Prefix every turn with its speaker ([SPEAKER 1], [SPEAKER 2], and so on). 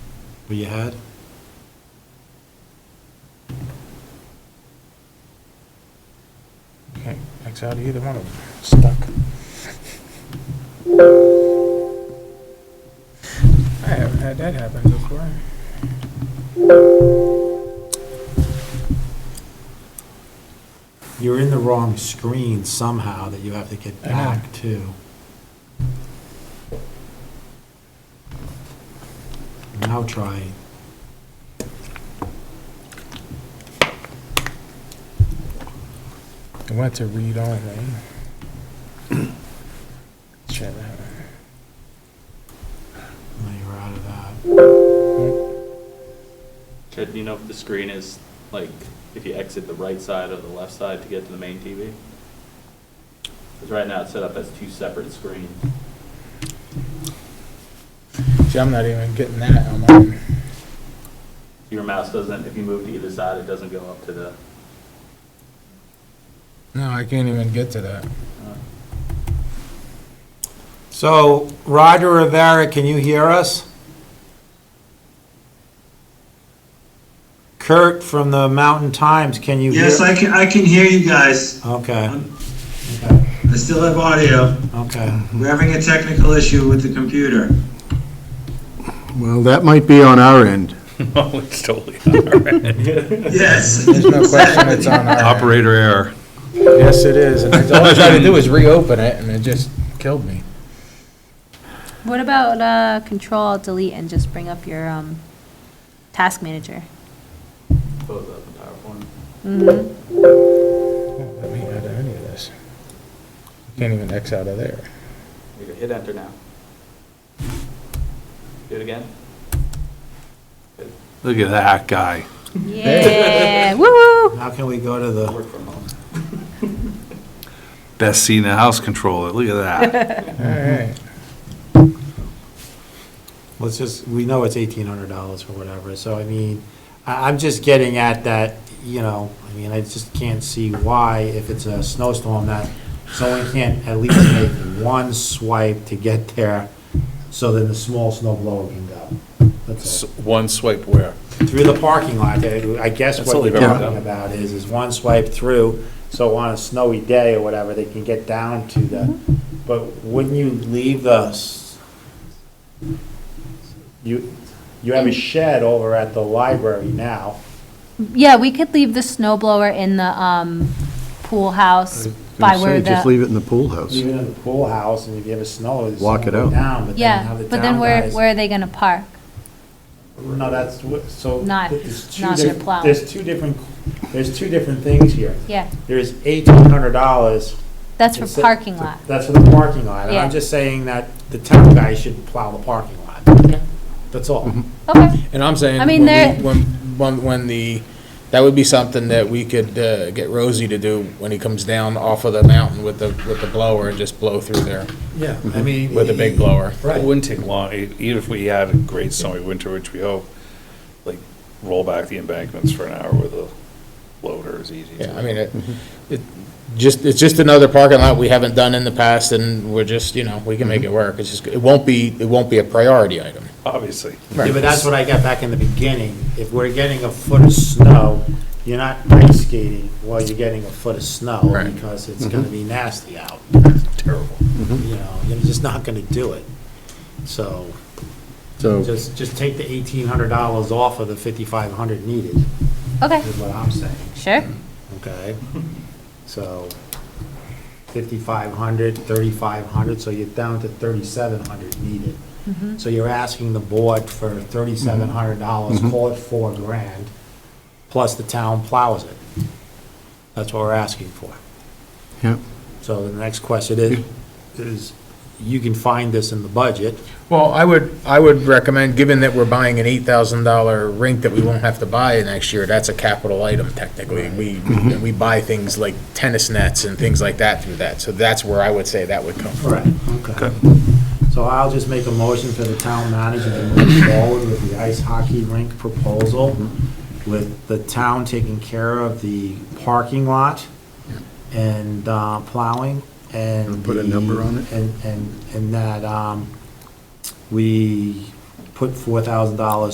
[SPEAKER 1] what you had?
[SPEAKER 2] Can't X out of either one of them, stuck. I haven't had that happen before.
[SPEAKER 1] You're in the wrong screen somehow that you have to get
[SPEAKER 2] I know.
[SPEAKER 1] back to. Now try.
[SPEAKER 2] I went to read only. Shit, that-
[SPEAKER 1] Now you're out of that.
[SPEAKER 3] Chad, do you know if the screen is, like, if you exit the right side or the left side to get to the main TV? Because right now it's set up as two separate screens.
[SPEAKER 2] See, I'm not even getting that on mine.
[SPEAKER 3] Your mouse doesn't, if you move to either side, it doesn't go up to the,
[SPEAKER 2] No, I can't even get to that.
[SPEAKER 1] So Roger Rivera, can you hear us? Kurt from the Mountain Times, can you hear?
[SPEAKER 4] Yes, I can, I can hear you guys.
[SPEAKER 1] Okay,
[SPEAKER 4] I still have audio.
[SPEAKER 1] okay.
[SPEAKER 4] We're having a technical issue with the computer.
[SPEAKER 5] Well, that might be on our end.
[SPEAKER 6] Oh, it's totally
[SPEAKER 4] Yes.
[SPEAKER 2] There's no question it's on our.
[SPEAKER 6] operator error.
[SPEAKER 2] Yes, it is. And all I tried to do is reopen it and it just killed me.
[SPEAKER 7] What about uh, Control Alt Delete and just bring up your um, task manager?
[SPEAKER 3] close up the PowerPoint.
[SPEAKER 7] Mm-hmm.
[SPEAKER 2] Won't Let me out of any of this. Can't even X out of there.
[SPEAKER 3] You can hit enter now. Do it again.
[SPEAKER 6] Look at that guy.
[SPEAKER 7] Yeah. Woo!
[SPEAKER 1] How can we go to the,
[SPEAKER 3] Work from home.
[SPEAKER 6] Best seat in the house controller. Look at that.
[SPEAKER 2] All right.
[SPEAKER 1] let's just, we know it's eighteen hundred dollars or whatever, so I mean, I, I'm just getting at that, you know, I mean, I just can't see why, if it's a snowstorm, that someone can't at least make one swipe to get there, so then the small snow blower can go. That's all.
[SPEAKER 6] One swipe where?
[SPEAKER 1] through the parking lot, I I guess
[SPEAKER 6] That's
[SPEAKER 1] what
[SPEAKER 6] all
[SPEAKER 1] you're
[SPEAKER 6] they've ever
[SPEAKER 1] talking
[SPEAKER 6] done.
[SPEAKER 1] about is, is one swipe through, so on a snowy day or whatever, they can get down to the, but wouldn't you leave the, s- you, you have a shed over at the library now,
[SPEAKER 7] Yeah, we could leave the snow blower in the um, pool house by
[SPEAKER 5] Say,
[SPEAKER 7] where the
[SPEAKER 5] Just leave it in the pool house.
[SPEAKER 1] even in the pool house, and if you have a snow, it's
[SPEAKER 5] Walk it
[SPEAKER 1] gonna go
[SPEAKER 5] out.
[SPEAKER 1] down, but then
[SPEAKER 7] yeah,
[SPEAKER 1] have the
[SPEAKER 7] but then
[SPEAKER 1] down
[SPEAKER 7] where
[SPEAKER 1] guys-
[SPEAKER 7] where are they gonna park?
[SPEAKER 1] No, that's what, so.
[SPEAKER 7] Not-
[SPEAKER 1] there's two
[SPEAKER 7] not
[SPEAKER 1] diff-
[SPEAKER 7] their plow.
[SPEAKER 1] There's two different, there's two different things here.
[SPEAKER 7] Yeah,
[SPEAKER 1] There's eighteen hundred dollars
[SPEAKER 7] that's for
[SPEAKER 1] It's a-
[SPEAKER 7] parking lot.
[SPEAKER 1] That's for the parking lot, and
[SPEAKER 7] Yeah.
[SPEAKER 1] I'm just saying that the town guy should plow the parking lot. That's all.
[SPEAKER 7] Okay.
[SPEAKER 2] And I'm saying,
[SPEAKER 7] I
[SPEAKER 2] when,
[SPEAKER 7] mean, they're-
[SPEAKER 2] we- when, when, when the, that would be something that we could, uh, get Rosie to do when he comes down off of the mountain with the, with the blower and just blow through there
[SPEAKER 1] Yeah, I mean.
[SPEAKER 2] with a big blower.
[SPEAKER 6] It
[SPEAKER 1] Right,
[SPEAKER 6] wouldn't take long, e- even if we had a great snowy winter, which we hope, like, roll back the embankments for an hour with a loader is easy.
[SPEAKER 2] Yeah, I mean, it, it, just, it's just another parking lot we haven't done in the past and we're just, you know, we can make it work. It's just, it won't be, it won't be a priority item.
[SPEAKER 6] Obviously.
[SPEAKER 1] yeah, but that's what I got back in the beginning, if we're getting a foot of snow, you're not ice skating while you're getting a foot of snow,
[SPEAKER 2] Right.
[SPEAKER 1] because it's gonna be nasty out,
[SPEAKER 6] Terrible.
[SPEAKER 1] you know, you're just not gonna do it. So,
[SPEAKER 5] So,
[SPEAKER 1] just, just take the eighteen hundred dollars off of the fifty-five hundred needed,
[SPEAKER 7] Okay.
[SPEAKER 1] is what I'm saying.
[SPEAKER 7] Sure.
[SPEAKER 1] Okay, so 5,500, 3,500, so you're down to 3,700 needed. So you're asking the board for $3,700, call it four grand, plus the town plows it. That's what we're asking for.
[SPEAKER 5] yeah,
[SPEAKER 1] So the next question is, is you can find this in the budget.
[SPEAKER 2] Well, I would, I would recommend, given that we're buying an eight thousand dollar rink that we won't have to buy next year, that's a capital item technically. We, we buy things like tennis nets and things like that through that, so that's where I would say that would come from.
[SPEAKER 1] Right. Okay. So I'll just make a motion for the town manager to move forward with the ice hockey rink proposal, with the town taking care of the parking lot and uh, plowing and.
[SPEAKER 5] And put a
[SPEAKER 1] the-
[SPEAKER 5] number on it?
[SPEAKER 1] And, and, and that um, we put $4,000